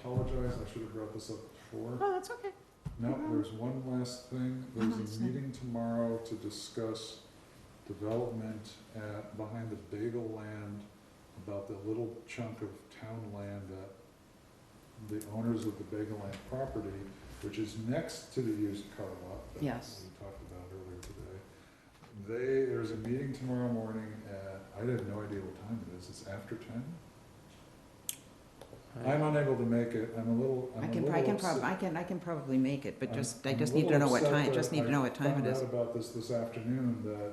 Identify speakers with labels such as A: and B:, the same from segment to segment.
A: apologize, I should have brought this up before.
B: Oh, that's okay.
A: No,
B: Uh-huh.
A: there's one last thing. There's
B: That's
A: a
B: fine.
A: meeting tomorrow to discuss development at, behind the bagel land, about the little chunk of town land that the owners of the bagel land property, which is next to the used car lot that we
B: Yes.
A: talked about earlier today. They, there's a meeting tomorrow morning at, I have no idea what time it is. It's after ten? I'm unable to make it. I'm a little, I'm
B: I
A: a
B: can,
A: little
B: I can
A: upset.
B: prob, I can, I can probably make it, but
A: I'm-
B: just, I
A: I'm
B: just
A: a
B: need to
A: little
B: know what
A: upset
B: time,
A: that
B: just need to know what time it
A: I
B: is.
A: found out about this this afternoon, that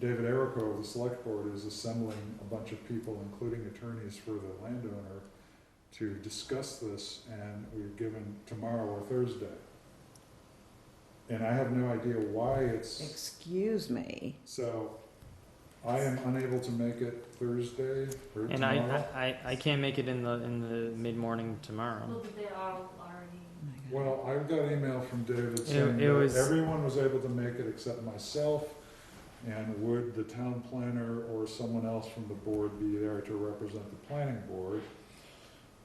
A: David Erico of the select board is assembling a bunch of people, including attorneys for the landowner, to discuss this, and we're given tomorrow or Thursday. And I have no idea why it's,
B: Excuse me.
A: so I am unable to make it Thursday or
C: And I,
A: tomorrow.
C: I, I- I can't make it in the, in the mid-morning
D: Well,
C: tomorrow.
D: but they are already.
B: Oh my God.
A: Well, I got an email from David saying
C: it was-
A: that everyone was able to make it except myself, and would the town planner or someone else from the board be there to represent the planning board?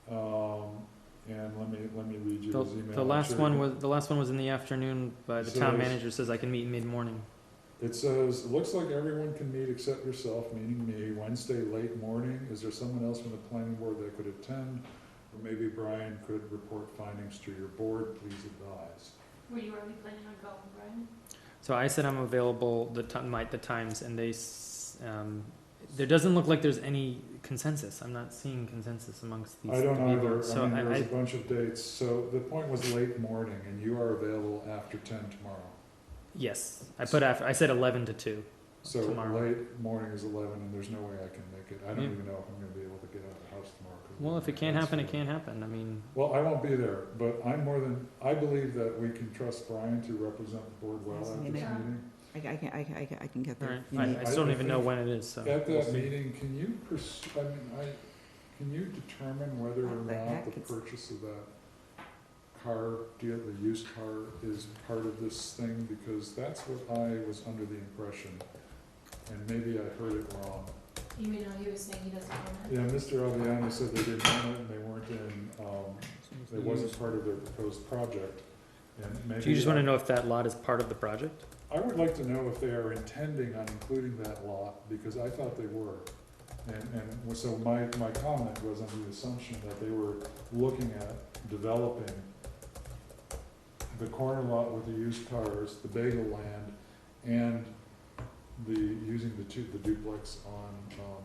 A: Um, and let me, let me read you
C: The,
A: his email.
C: the
A: I'm
C: last
A: sure
C: one
A: you-
C: was, the last one was in the afternoon, but the
A: So
C: town
A: there's-
C: manager says I can meet mid-morning.
A: It says, looks like everyone can meet except yourself, meaning me, Wednesday late morning. Is there someone else from the planning board that could attend? Or maybe Brian could report findings to your board, please advise.
D: Were you already planning on going, Brian?
C: So I said I'm available the ti- my, the times and they, s- um, there doesn't look like there's any consensus. I'm not seeing consensus amongst these
A: I don't
C: people.
A: either,
C: So
A: I mean,
C: I,
A: there's a
C: I,
A: bunch of dates, so the point was late morning, and you are available after ten tomorrow.
C: yes, I put after, I said eleven to two.
A: So
C: Tomorrow.
A: late morning is eleven, and there's no way I can make it, I don't
C: Yeah.
A: even know if I'm gonna be able to get out of the house tomorrow. 'cause
C: Well, if it can't
A: my
C: happen, it
A: hands are-
C: can't happen. I mean,
A: Well, I won't be there, but I'm more than, I believe that we can trust Brian to represent the board well
B: Yes,
A: at this
B: you know.
A: meeting.
B: I, I can, I can, I can- I can get
C: all
B: there.
C: right,
B: You
C: I,
B: need-
C: I still don't even know when it is, so.
A: At
C: we'll
A: that
C: see.
A: meeting, can you pers- I mean, I, can you determine whether or
B: What the
A: not
B: heck
A: the
B: is-
A: purchase of that car, deal, the used car is part of this thing? Because that's what I was under the impression, and maybe I heard it wrong.
D: You mean, oh, he was saying he doesn't want it?
A: Yeah, Mr. Aviano said they didn't want it and they weren't in, um, it wasn't part of their proposed project, and maybe.
C: Do you just wanna know if that lot is part of the project?
A: I would like to know if they are intending on including that lot, because I thought they were. And, and so my, my comment was under the assumption that they were looking at developing the corner lot with the used cars, the bagel land, and the, using the two, the duplex on, um,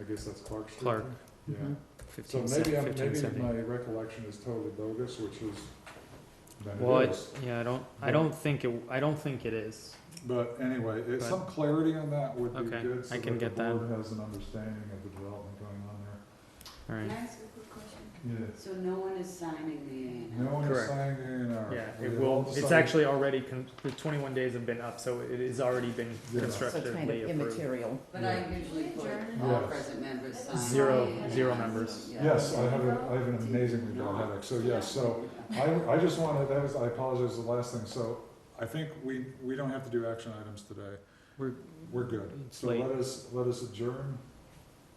A: I guess that's Clark Street.
C: Clark.
A: Yeah.
B: Mhm.
A: So
C: Fifteen
A: maybe I'm,
C: fifteen
A: maybe my
C: seventy.
A: recollection is totally bogus, which is, then
C: Well,
A: it
C: it,
A: is.
C: yeah, I don't, I
A: But-
C: don't think it, I don't think it is.
A: But anyway, it-
C: But-
A: some clarity on that would be
C: Okay,
A: good, so
C: I can
A: that
C: get
A: the
C: that.
A: board has an understanding of the development going on there.
C: All right.
D: ask a quick question?
A: Yeah.
E: So no one is signing the A and
A: No one is
C: Correct.
A: signing the A and R.
C: Yeah,
A: We
C: it
A: have
C: will,
A: all
C: it's
A: decided-
C: actually already, con- the twenty-one days have been up, so it has already been
A: Yeah.
B: So it's kind
C: constructively
B: of
C: approved.
B: immaterial.
E: But I usually put all
A: Yes.
E: present members sign.
C: Zero-
E: the A and
C: zero
E: Rs.
C: members.
E: Yeah.
A: Yes, I have, a- I have an amazingly bad
E: No.
A: headache, so yes, so I, I just wanted, that was, I apologize, the last thing, so I think we, we don't have to do action items today.
C: We're-
A: We're good.
C: It's
A: So
C: late.
A: let us, let us adjourn,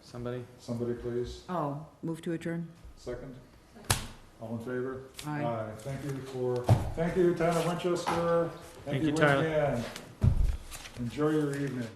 C: Somebody?
A: somebody please,
B: Oh, move to adjourn?
A: second, all in favor?
B: Aye.
A: Thank you for, thank you, town of Winchester.
C: Thank you,
A: once
C: Tyler.
A: again. Enjoy your evening.